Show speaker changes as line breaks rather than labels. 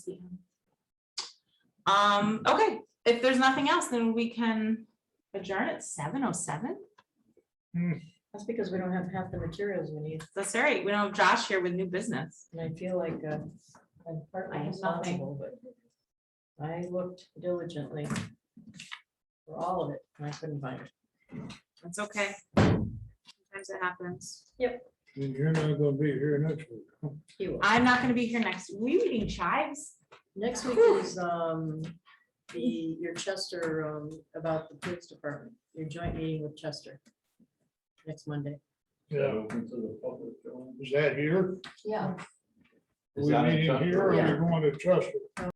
Um, okay, if there's nothing else, then we can adjourn at seven oh seven.
That's because we don't have half the materials we need,
That's all right. We don't have Josh here with new business.
and I feel like uh, I'm partly
I have nothing.
responsible, but I looked diligently for all of it, and I couldn't find it.
That's okay. Sometimes it happens.
And you're not gonna be here next week. huh?
You are.
I'm not gonna be here next. We eating chives?
Next week
Whew.
is um, the, your Chester, um, about the police department, your joint meeting with Chester. Next Monday.
Yeah, is that here?
Yeah.
We meeting here or are
Yeah.
we going to Chester?